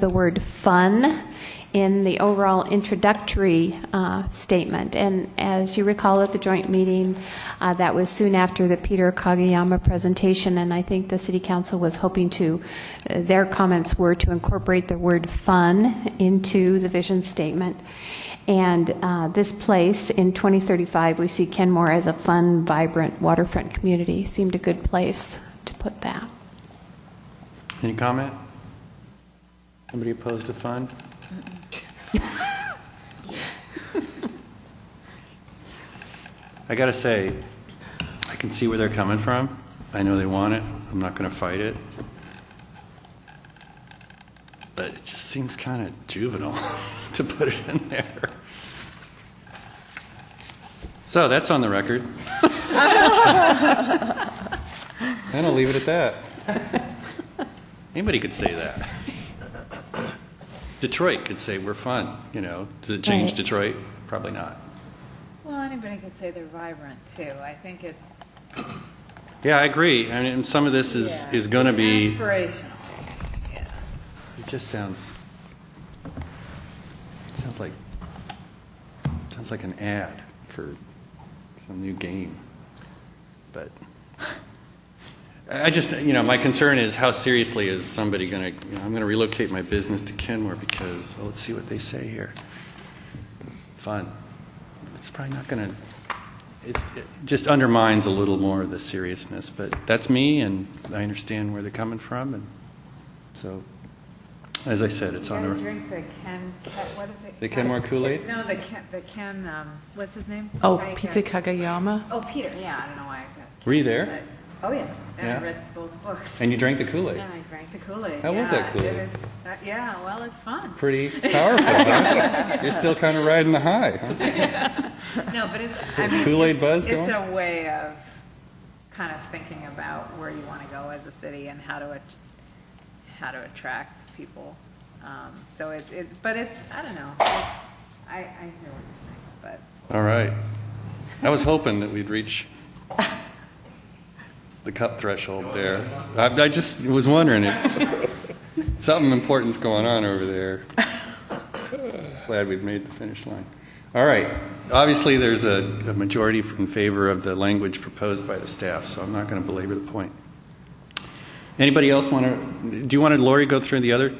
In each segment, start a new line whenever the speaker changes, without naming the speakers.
the word fun in the overall introductory uh, statement. And as you recall at the joint meeting, uh, that was soon after the Peter Kageyama presentation, and I think the city council was hoping to, uh, their comments were to incorporate the word fun into the vision statement. And uh, this place, in 2035, we see Kenmore as a fun, vibrant waterfront community. Seemed a good place to put that.
Any comment? Somebody opposed to fun? I gotta say, I can see where they're coming from. I know they want it. I'm not gonna fight it. But it just seems kind of juvenile to put it in there. So that's on the record. And I'll leave it at that. Anybody could say that. Detroit could say we're fun, you know. Does it change
Right.
Detroit? Probably not.
Well, anybody could say they're vibrant, too. I think it's,
Yeah, I agree. I mean, some of this is,
yeah.
is going to
It's
be,
Aspirational, yeah.
it just sounds, it sounds like, sounds like an ad for some new game. But I I just, you know, my concern is how seriously is somebody going to, you know, I'm going to relocate my business to Kenmore because, well, let's see what they say here. Fun. It's probably not going to, it's, it just undermines a little more of the seriousness, but that's me, and I understand where they're coming from, and so, as I said, it's on
You gotta
the,
drink the Ken, Ke- what is it?
The Kenmore Kool-Aid?
No, the Ken, the Ken, um, what's his name?
Oh,
Right,
Peter
uh,
Kagayama.
Oh, Peter, yeah, I don't know why. I got-
Were you there?
Oh, yeah, and
Yeah.
I read both books.
and you drank the Kool-Aid.
And I drank the Kool-Aid.
How was
yeah,
that Kool-Aid?
it is- uh, Yeah, well, it's fun.
Pretty powerful, huh? You're still kind of riding the high, huh?
No, but it's, I mean.
Kool-Aid
it's-
buzz
It's
going?
a way of kind of thinking about where you want to go as a city and how to, at- how to attract people. Um, So it, it, but it's, I don't know, it's, I, I hear what you're saying, but.
All right. I was hoping that we'd reach the cup threshold there. I I just was wondering if something important's going on over there. Glad we've made the finish line. All right. Obviously, there's a a majority in favor of the language proposed by the staff, so I'm not going to belabor the point. Anybody else want to, do you want to, Lori, go through the other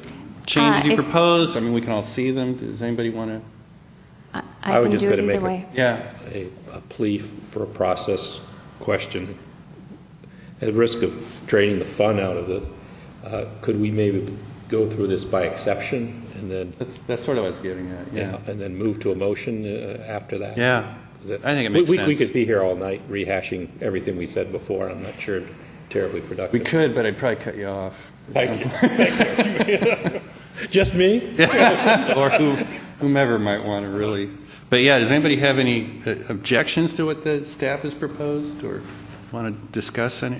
Uh,
changes you
if-
proposed? I mean, we can all see them. Does anybody want to?
I
I
I can
would just
do it
better
either
make a-
way.
Yeah.
a a plea for a process question. At risk of draining the fun out of this, uh, could we maybe go through this by exception and then,
That's, that's sort of what I was getting at, yeah.
and then move to a motion uh, after that?
Yeah.
Is it-
I think it
we-
makes
we- We
sense.
could be here all night rehashing everything we said before, and I'm not sure terribly productive.
We could, but I'd probably cut you off.
Thank you. Thank you. Just me?
Or who- whomever might want to really. But yeah, does anybody have any uh, objections to what the staff has proposed or want to discuss any,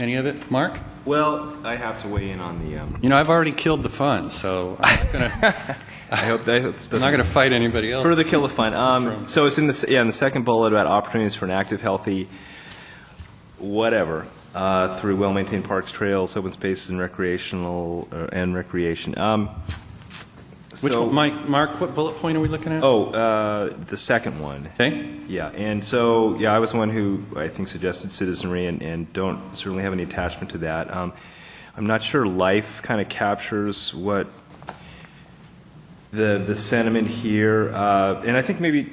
any of it? Mark?
Well, I have to weigh in on the, um,
You know, I've already killed the fun, so I'm not going to,
I hope that doesn't.
I'm not going to fight anybody else.
Further kill the fun.
From-
Um, so it's in the, s- yeah, in the second bullet about opportunities for an active, healthy, whatever, uh, through well-maintained parks, trails, open spaces, and recreational, uh, and recreation. Um,
Which,
so-
one- Mike, Mark, what bullet point are we looking at?
Oh, uh, the second one.
Okay,
Yeah, and so, yeah, I was the one who, I think, suggested citizenry, and, and don't certainly have any attachment to that. Um, I'm not sure life kind of captures what the, the sentiment here, uh, and I think maybe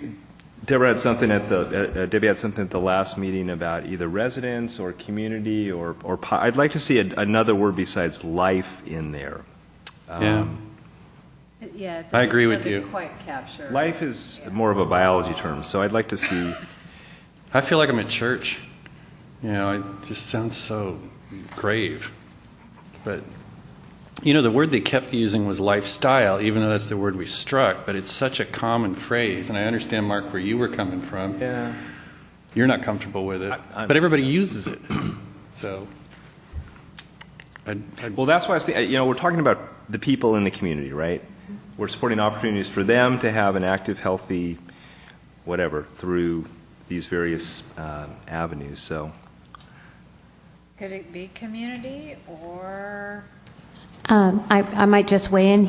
Deborah had something at the, uh, Debbie had something at the last meeting about either residence or community or, or, po- I'd like to see a- another word besides life in there.
yeah.
Um,
It- Yeah. it
I agree
doesn't-
with you.
Doesn't quite capture.
Life is more of a biology term, so I'd like to see
I feel like I'm at church. You know, it just sounds so grave. But, you know, the word they kept using was lifestyle, even though that's the word we struck, but it's such a common phrase. And I understand, Mark, where you were coming from.
Yeah.
You're not comfortable with it,
I- I'm-
but everybody uses it. So, I'd, I'd,
Well, that's why I was thinking, you know, we're talking about the people in the community, right? We're supporting opportunities for them to have an active, healthy, whatever, through these various um, avenues, so.
Could it be community or?
Um, I I might just weigh in